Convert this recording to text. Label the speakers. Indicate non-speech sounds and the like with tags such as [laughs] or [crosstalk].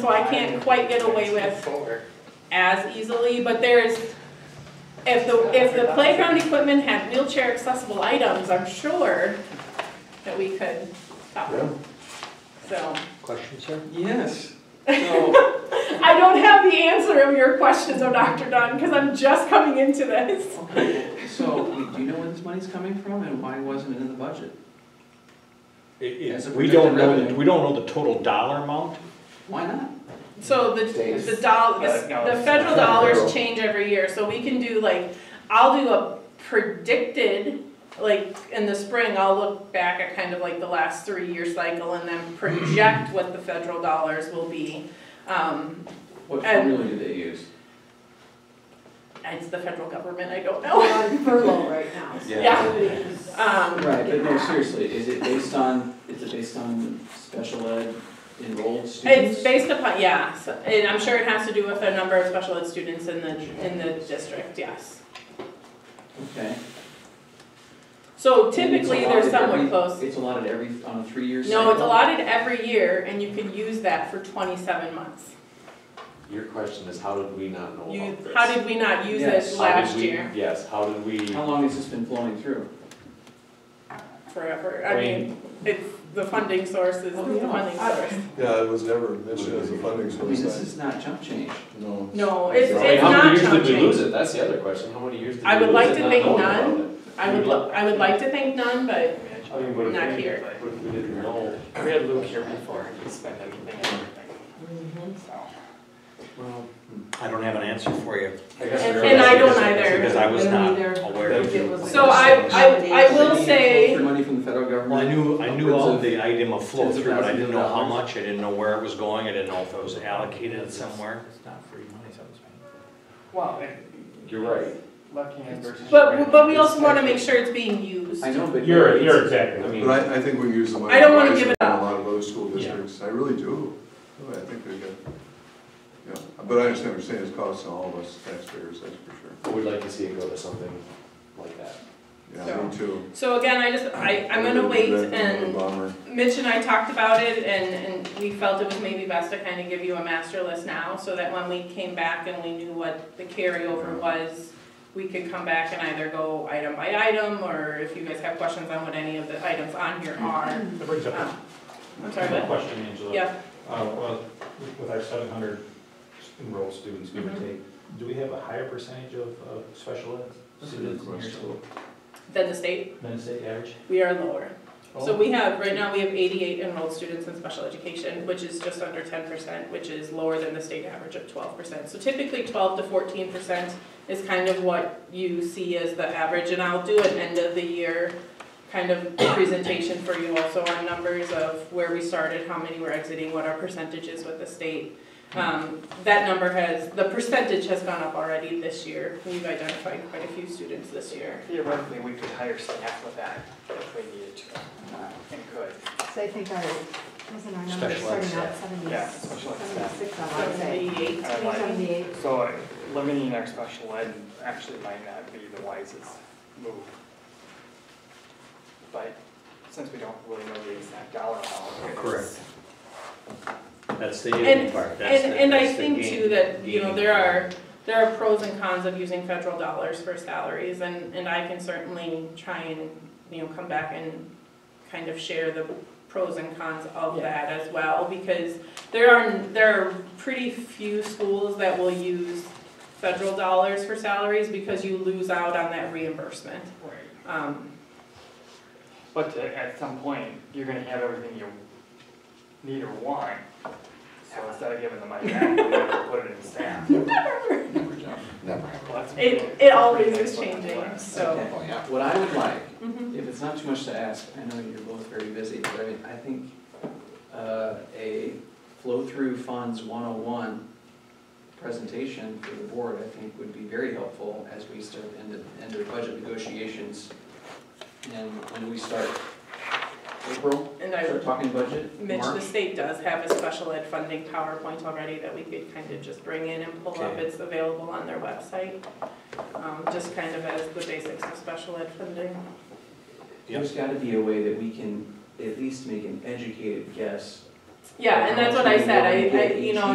Speaker 1: So I can't quite get away with
Speaker 2: Forward.
Speaker 1: as easily, but there's, if the, if the playground equipment had wheelchair accessible items, I'm sure that we could top
Speaker 3: Yeah.
Speaker 1: them. So,
Speaker 3: Question, sir?
Speaker 2: Yes, [laughs] so,
Speaker 1: I don't have the answer of your question though, Dr. Dunn, because I'm just coming into this.
Speaker 2: okay, so we do know where this money's coming from and why wasn't it in the budget? As a
Speaker 3: We don't
Speaker 2: projected
Speaker 3: know,
Speaker 2: revenue.
Speaker 3: we don't know the total dollar amount?
Speaker 2: Why not?
Speaker 1: So the, the doll, the the federal dollars change every year, so we can do like, I'll do a predicted, like, in the spring, I'll look back at kind of like the last three-year cycle and then project what the federal dollars will be. Um,
Speaker 2: What
Speaker 1: And-
Speaker 2: formula do they use?
Speaker 1: it's the federal government, I don't
Speaker 4: We're
Speaker 1: know. [laughs]
Speaker 4: on furlough right now. so
Speaker 2: Yeah.
Speaker 4: everybody's-
Speaker 1: Um,
Speaker 2: Right, but no, seriously, is it based on, is it based on special ed enrolled students?
Speaker 1: It's based upon, yeah, so- and I'm sure it has to do with the number of special ed students in the, in the district, yes.
Speaker 2: Okay.
Speaker 1: So
Speaker 2: And it's
Speaker 1: typically,
Speaker 2: allotted
Speaker 1: they're somewhat
Speaker 2: every-
Speaker 1: close.
Speaker 2: It's allotted every, on a three-year cycle?
Speaker 1: No, it's allotted every year, and you can use that for twenty-seven months.
Speaker 5: Your question is, how did we not know
Speaker 1: You,
Speaker 5: about this?
Speaker 1: how did we not use
Speaker 2: Yes.
Speaker 1: it
Speaker 5: How did
Speaker 1: last
Speaker 5: we-
Speaker 1: year
Speaker 5: Yes, how did we,
Speaker 2: How long has this been flowing through?
Speaker 1: forever? I
Speaker 5: I
Speaker 1: mean, it's, the funding source is
Speaker 2: Oh,
Speaker 1: the
Speaker 2: yeah.
Speaker 1: funding source.
Speaker 6: Yeah, it was never mentioned as a funding
Speaker 2: I mean, this
Speaker 6: source,
Speaker 2: is not jump change.
Speaker 6: no.
Speaker 1: No, it's,
Speaker 5: Like,
Speaker 1: it's
Speaker 5: how many
Speaker 1: not
Speaker 5: years did we
Speaker 1: challenging.
Speaker 5: lose it? That's the other question, how many years did we
Speaker 1: I would
Speaker 5: lose
Speaker 1: like
Speaker 5: it
Speaker 1: to
Speaker 5: not
Speaker 1: think
Speaker 5: knowing
Speaker 1: none.
Speaker 5: about it?
Speaker 1: I would, lo- I would like to think none, but
Speaker 5: I mean, what if
Speaker 1: Not
Speaker 5: we-
Speaker 1: here.
Speaker 5: What if we didn't know?
Speaker 7: We had Luke here before, he spent everything and everything.
Speaker 2: Mm-hmm.
Speaker 7: So,
Speaker 2: Well,
Speaker 3: I don't have an answer for you.
Speaker 5: I guess
Speaker 1: And-
Speaker 5: we're-
Speaker 1: and I don't
Speaker 3: Because
Speaker 1: either.
Speaker 3: I was
Speaker 4: I don't
Speaker 3: not
Speaker 4: either.
Speaker 3: aware of
Speaker 4: It was-
Speaker 1: So I, I, I will
Speaker 2: maybe
Speaker 1: say,
Speaker 2: For money from the federal government?
Speaker 3: Well, I knew, I knew all the item of flow
Speaker 2: Tens of
Speaker 3: through, but I didn't know how
Speaker 2: thousands of
Speaker 3: much, I didn't know where it was going, I didn't know if it was allocated somewhere.
Speaker 7: well, and
Speaker 5: You're right.
Speaker 7: Buckingham versus.
Speaker 1: but, but we also wanna make sure it's being used.
Speaker 2: I know, but.
Speaker 5: You're, you're exactly, I mean,
Speaker 6: But I, I think we use the money.
Speaker 1: I don't wanna
Speaker 6: wisely
Speaker 1: give it
Speaker 6: in
Speaker 1: up.
Speaker 6: A lot of other school districts, I really do, I think they get, yeah, but I understand what you're saying, it's costing all of us taxpayers, that's for sure.
Speaker 5: we'd like to see it go to something like that.
Speaker 6: Yeah, me too.
Speaker 1: So again, I just, I, I'm gonna wait and
Speaker 6: Bomber.
Speaker 1: Mitch and I talked about it and, and we felt it was maybe best to kind of give you a master list now so that when we came back and we knew what the carryover was, we could come back and either go item by item or if you guys have questions on what any of the items on here are.
Speaker 8: That brings up
Speaker 1: Um, I'm sorry,
Speaker 8: a
Speaker 1: but,
Speaker 8: question, Angela.
Speaker 1: yeah,
Speaker 8: Uh, well, with- with our seven hundred enrolled students, give or
Speaker 1: Mhm.
Speaker 8: take, do we have a higher percentage of, of special ed
Speaker 6: That's a good
Speaker 8: students in your
Speaker 6: question.
Speaker 8: school
Speaker 1: then the state,
Speaker 8: than state average?
Speaker 1: we are lower. So we have, right now, we have eighty-eight enrolled students in special education, which is just under ten percent, which is lower than the state average of twelve percent. So typically, twelve to fourteen percent is kind of what you see as the average, and I'll do an end of the year kind of presentation for you also on numbers of where we started, how many were exiting, what our percentage is with the state. Um, that number has, the percentage has gone up already this year, we've identified quite a few students this year.
Speaker 7: Theoretically, we could hire staff with that if we needed to, uh, and could.
Speaker 4: So I think our, wasn't our number
Speaker 3: Special ed
Speaker 4: starting out
Speaker 7: Yeah,
Speaker 4: 76,
Speaker 7: special ed staff.
Speaker 4: 76, I would say.
Speaker 1: Seventy-eight,
Speaker 7: I like-
Speaker 4: Seventy-eight.
Speaker 7: So uh, limiting our special ed actually might not be the wisest move. But since we don't really know the exact dollar amount. it's-
Speaker 3: Correct. Oh, That's the
Speaker 1: And-
Speaker 3: iffy part, that's
Speaker 1: And,
Speaker 3: the,
Speaker 1: and I
Speaker 3: that's the
Speaker 1: think
Speaker 3: game-
Speaker 1: too that, you know,
Speaker 3: gaming
Speaker 1: there
Speaker 3: part.
Speaker 1: are, there are pros and cons of using federal dollars for salaries and, and I can certainly try and, you know, come back and kind of share the pros and cons of
Speaker 2: Yeah.
Speaker 1: that as well, because there are, there are pretty few schools that will use federal dollars for salaries because you lose out on that reimbursement.
Speaker 7: Right.
Speaker 1: Um,
Speaker 7: But to- at some point, you're gonna have everything you need or want. So instead of giving the money back, you have to put it in staff.
Speaker 2: Never jump.
Speaker 5: Never.
Speaker 7: Well, that's-
Speaker 1: it, it always
Speaker 7: that's
Speaker 1: is
Speaker 7: what the
Speaker 1: changing,
Speaker 7: last-
Speaker 1: so.
Speaker 5: Oh,
Speaker 2: Okay. What I would like,
Speaker 1: Mhm.
Speaker 2: if it's not too much to ask, I know you're both very busy, but I mean, I think, uh, a flow-through funds one-on-one presentation for the board, I think would be very helpful as we start into, into budget negotiations. And when we start April,
Speaker 1: And I would
Speaker 2: start talking budget,
Speaker 1: Mitch, the
Speaker 2: March.
Speaker 1: state does have a special ed funding PowerPoint already that we could kind of just bring in and pull up.
Speaker 3: Okay.
Speaker 1: It's available on their website, um, just kind of as the basics of special ed funding.
Speaker 2: There's gotta be a way that we can at least make an educated guess
Speaker 1: Yeah, and that's what I said, I, I, you know,